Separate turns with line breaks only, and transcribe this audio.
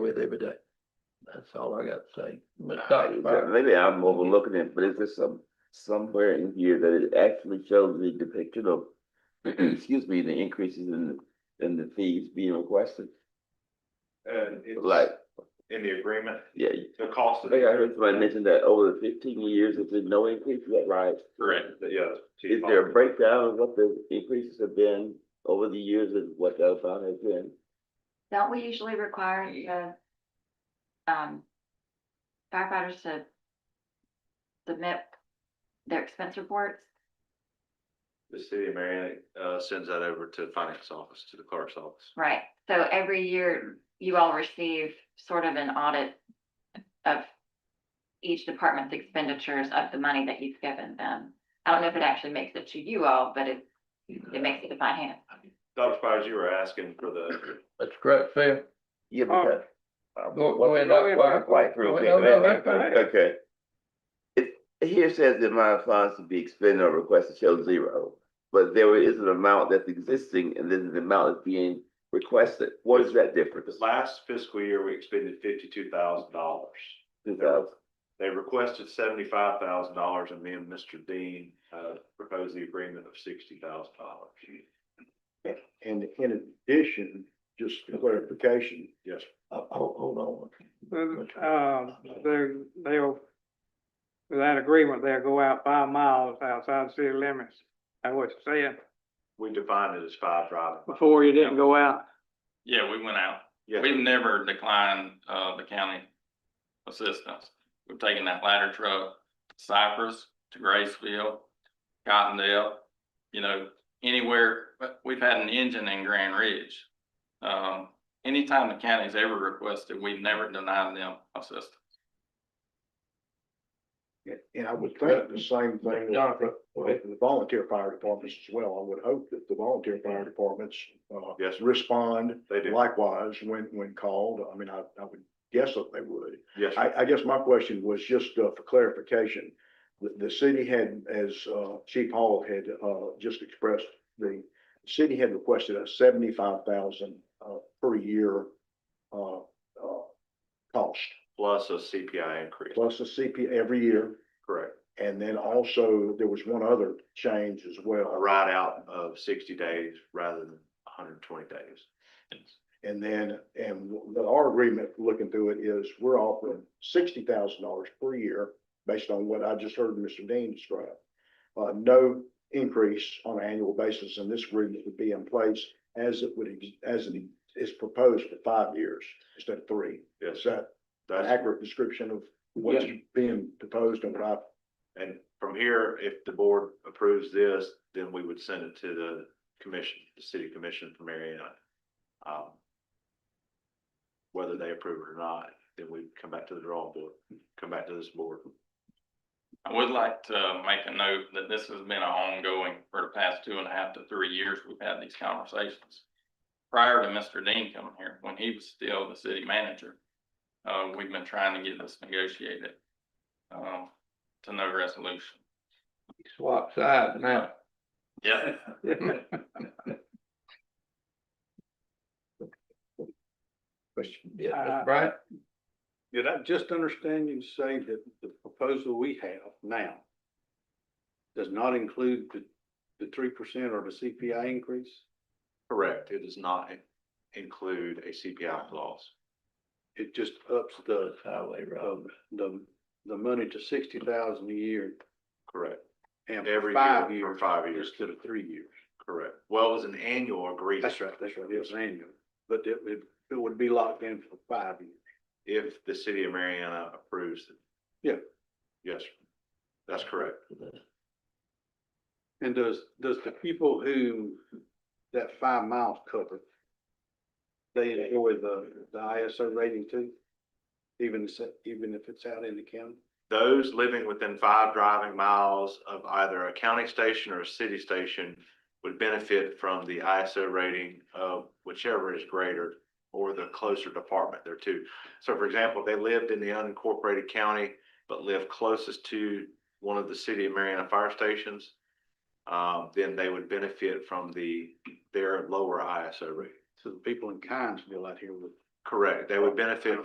with every day. That's all I got to say. Ms. Dottie,
Uh, Maybe I'm overlooking it, but is there some, somewhere in here that it actually shows the depiction of, excuse me, the increases in, in the fees being requested?
And it's
Like,
in the agreement,
yeah,
the cost
I
of.
think I heard somebody mention that over the fifteen years, there's been no increase, is that right?
Correct, yes.
Is there a breakdown of what the increases have been over the years and what the amount has been?
Don't we usually require the um firefighters to submit their expense reports?
The city of Marion, uh, sends that over to the finance office, to the clerk's office.
Right, so every year you all receive sort of an audit of each department's expenditures of the money that you've given them. I don't know if it actually makes it to you all, but it, it makes it to finance.
Dr. Spires, you were asking for the,
That's correct, Phil.
Yeah,
Uh,
because. uh,
go-
what-
go ahead,
what-
Dr.
what-
White.
White, real
Go
quick,
ahead, Oh, no, no,
wait,
that's
wait,
fine.
Okay. It, here says the amount of funds to be expended or requested shows zero, but there is an amount that's existing and then the amount is being requested. What is that difference?
this last fiscal year, we expended fifty-two thousand dollars.
Two thousand.
They requested seventy-five thousand dollars and me and Mr. Dean, uh, proposed the agreement of sixty thousand dollars.
And in addition, just for clarification,
Yes, sir.
Uh, Hold, hold
Um, they, they'll, with that agreement, they'll go out five miles outside the city limits. That's what you're saying.
we defined it as five driving.
Before you didn't go out.
Yeah, we went out.
Yes,
We've never declined, uh, the county assistance. We've taken that ladder truck to Cypress, to Graceville, Cottondale, you know, anywhere, but we've had an engine in Grand Ridge. Um, anytime the county's ever requested, we've never denied them assistance.
and I would think the same thing
on.
is
Jonathan, go ahead.
with the volunteer fire departments as well. I would hope that the volunteer fire departments uh
Yes, sir.
respond
they do.
likewise when when called. I mean, I I would guess that they would.
Yes, sir.
I, I guess my question was just uh, for clarification. The, the city had, as uh, Chief Hall had uh, just expressed, the city had requested a seventy-five thousand per year uh, uh, cost,
plus a CPI increase,
plus a CP every year.
correct.
And then also, there was one other change as
A
well.
ride out of sixty days rather than hundred and twenty days.
And then, and the- our agreement, looking through it, is we're offering sixty thousand dollars per year based on what I just heard Mr. Dean describe. Uh, no increase on an annual basis, and this agreement would be in place as it would, ex- as it is proposed for five years instead of three.
Yes,
Is that an
that's,
accurate description of what's being proposed and what I
and from here, if the board approves this, then we would send it to the commission, the city commission for Marion. Um, Whether they approve it or not, then we come back to the drawing board, come back to this board.
I would like to make a note that this has been an ongoing for the past two and a half to three years we've had these conversations. Prior to Mr. Dean coming here, when he was still the city manager, uh, we've been trying to get this negotiated, um, to no resolution.
Swap sides now.
Yeah.
Question, yes, Mr.
Uh,
Bryant?
Did I just understand you to say that the proposal we have now does not include the, the three percent or the CPI increase?
Correct, it does not include a CPI clause.
It just ups the,
Highway road.
um, the, the money to sixty thousand a year
Correct,
and for
Every year
five
for
years.
five years.
Instead of three years.
correct. Well, it was an annual agreement.
That's right, that's right, it was annual, but it, it, it would be locked in for five years.
If the city of Mariana approves it.
Yeah.
Yes, sir. that's correct.
And does, does the people who, that five miles cover, they enjoy the, the ISO rating too? Even, se- even if it's out in the county?
Those living within five driving miles of either a county station or a city station would benefit from the ISO rating of whichever is greater or the closer department there too. So for example, if they lived in the unincorporated county, but lived closest to one of the city of Mariana fire stations, um, then they would benefit from the, their lower ISO rating.
So the people in Kynesville out here would
Correct. They would benefit